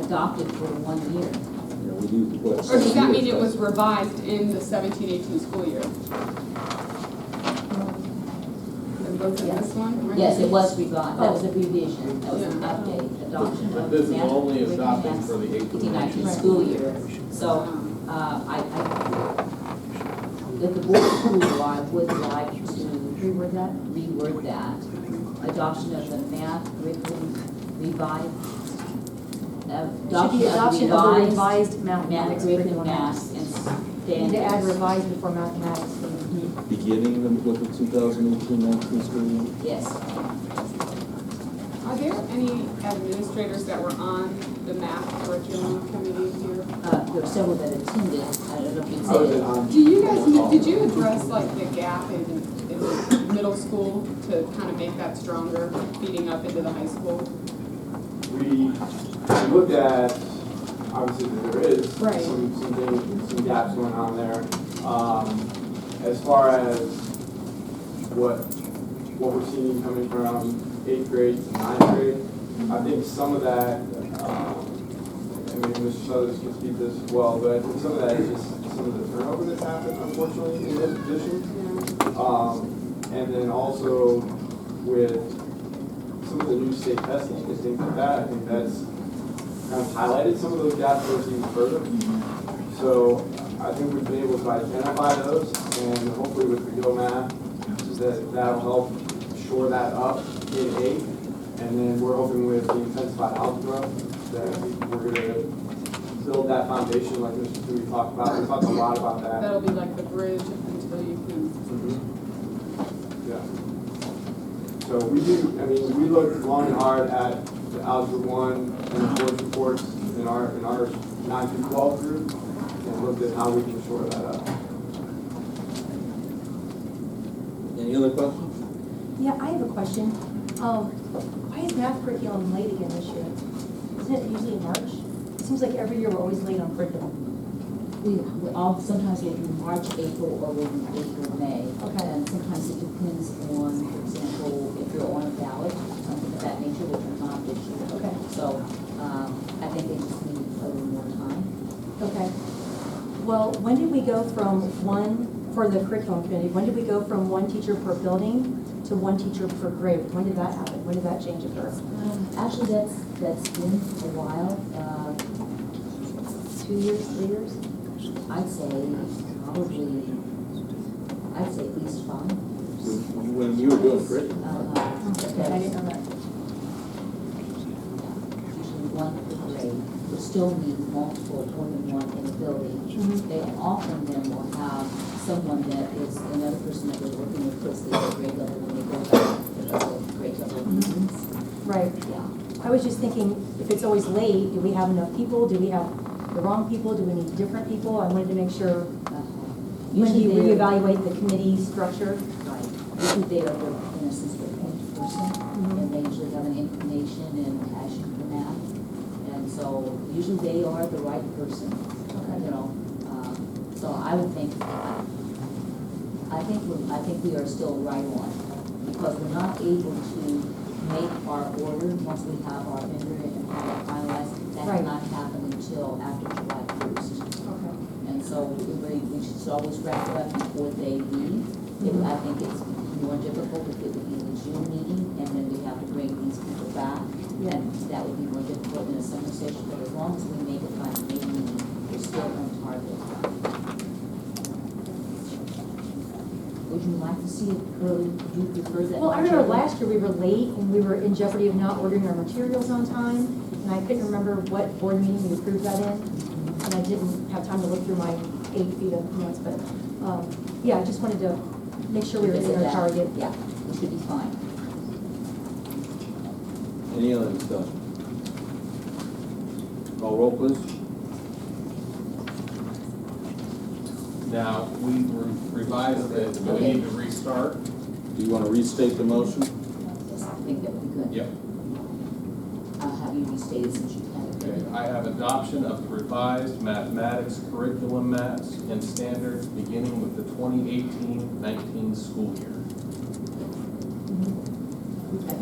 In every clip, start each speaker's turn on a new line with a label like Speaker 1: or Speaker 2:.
Speaker 1: adopted for one year.
Speaker 2: Yeah, we used it, what?
Speaker 3: Or does that
Speaker 2: six
Speaker 3: mean it
Speaker 2: years,
Speaker 3: was revised in the seventeen eighteen school year? And both in this one? right?
Speaker 1: Yes, it was revised, that was a revision, that was an
Speaker 3: Yeah.
Speaker 1: update, adoption.
Speaker 4: But
Speaker 1: of
Speaker 4: this is
Speaker 1: the
Speaker 4: only
Speaker 1: Management
Speaker 4: adopted
Speaker 1: Act
Speaker 4: for the eighteen
Speaker 1: 2019
Speaker 4: nineteen.
Speaker 1: school year. So,
Speaker 3: Um,
Speaker 1: uh, I, I, if the board would like, would like to
Speaker 5: Reword that?
Speaker 1: reword that, adoption of the math curriculum revised.
Speaker 5: Should be adoption of the revised
Speaker 1: Math
Speaker 5: mathematics
Speaker 1: curriculum,
Speaker 5: curriculum.
Speaker 1: math and
Speaker 5: Need
Speaker 1: standards.
Speaker 5: to add revised before mathematics.
Speaker 2: Beginning of the 2018-19 school year.
Speaker 1: Yes.
Speaker 3: Are there any administrators that were on the math curriculum committee here?
Speaker 1: Uh, there were several that attended, uh, I don't know if you
Speaker 2: Oh,
Speaker 4: I was
Speaker 1: said it.
Speaker 4: on-
Speaker 3: Do you guys, kn- did you address like the gap in, in middle school to kind of make that stronger, feeding up into the high school?
Speaker 6: we we looked at, obviously, that there is
Speaker 3: Right.
Speaker 6: some, some things, some gaps going on there. Um, as far as what, what we're seeing coming from eighth grade to ninth grade, I think some of that, um, I mean, Mr. Shutters can speak to this as well, but I think some of that is just some of the turnover that's happened unfortunately in those positions. Um, and then also with some of the new state testing and things like that, I think that's kind of highlighted some of those gaps that we've seen further. So I think we've been able to identify those and hopefully with the Go Math, that, that'll help shore that up in eight. And then we're hoping with the intensified algebra that we're gonna build that foundation like Mr. Dewey talked about. We talked a lot about that.
Speaker 3: That'll be like the bridge until you can,
Speaker 6: Yeah. So we do, I mean, we looked long and hard at the Algebra One and the board reports in our, in our nine through twelve group, and looked at how we can shore that up.
Speaker 2: Any other questions?
Speaker 5: Yeah, I have a question. Um, why is math curriculum late again this year? Isn't it usually in March? It seems like every year we're always late on curriculum.
Speaker 1: We, we all, sometimes we do March, April, or we do April, May.
Speaker 5: Okay.
Speaker 1: And sometimes it depends on, for example, if you're on a ballot, something of that nature, which we're not this year.
Speaker 5: Okay.
Speaker 1: So, um, I think they just need a little more time.
Speaker 5: Okay. Well, when did we go from one, for the curriculum committee, when did we go from one teacher per building to one teacher per grade? When did that happen? When did that change occur?
Speaker 1: Actually, that's, that's been a while, uh, two years, three years? I'd say probably, I'd say at least five.
Speaker 2: When when you were doing curriculum,
Speaker 5: Oh,
Speaker 1: Uh,
Speaker 5: I didn't know that.
Speaker 1: usually one per grade, but still need multiple, more than one in a building.
Speaker 5: Mm-hmm.
Speaker 1: They often then will have someone that is another person that they're working with puts the other grade level when they go back to the other grade level meetings.
Speaker 5: Right.
Speaker 1: Yeah,
Speaker 5: I was just thinking, if it's always late, do we have enough people? Do we have the wrong people? Do we need different people? I wanted to make sure,
Speaker 1: uh-huh.
Speaker 5: when do you
Speaker 1: Usually they're-
Speaker 5: reevaluate the committee structure?
Speaker 1: Right, usually they are, the- in a sense, the point person, and they usually have an inclination and passion for math. And so usually they are the right person, you know, um, so I would think, I think, we- I think we are still right on, because we're not able to make our order once we have our vendor and have it finalized. That
Speaker 5: Right.
Speaker 1: cannot happen until after July first.
Speaker 5: Okay.
Speaker 1: And so we, we- we should always wrap it up before they leave. If, I think it's more difficult if it would be the June meeting and then we have to bring these people back.
Speaker 5: Yeah.
Speaker 1: And that would be more difficult in a summer session, but as long as we make it by the May meeting, we're still on target. Would you like to see it early, do you prefer that?
Speaker 5: Well, I remember last year we were late and we were in jeopardy of not ordering our materials on time. And I couldn't remember what board meeting we approved that in. And I didn't have time to look through my eight feet of notes, but, um, yeah, I just wanted to make sure we were
Speaker 1: Revisit
Speaker 5: in our
Speaker 1: that.
Speaker 5: target.
Speaker 1: Yeah, it should be fine.
Speaker 2: any other discussion? Call roll, please.
Speaker 4: Now, we re- revised it, do we need to restart?
Speaker 2: Do you want to restate the motion?
Speaker 1: Yes, I think that would be good.
Speaker 4: Yep.
Speaker 1: I'll have you restate it since you have
Speaker 4: Okay,
Speaker 1: it.
Speaker 4: I have adoption of the revised mathematics curriculum maps and standards beginning with the 2018-19 school year.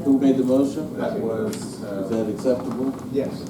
Speaker 2: Who made the motion?
Speaker 4: That was, uh,
Speaker 2: uh, Is that acceptable?
Speaker 7: Yes.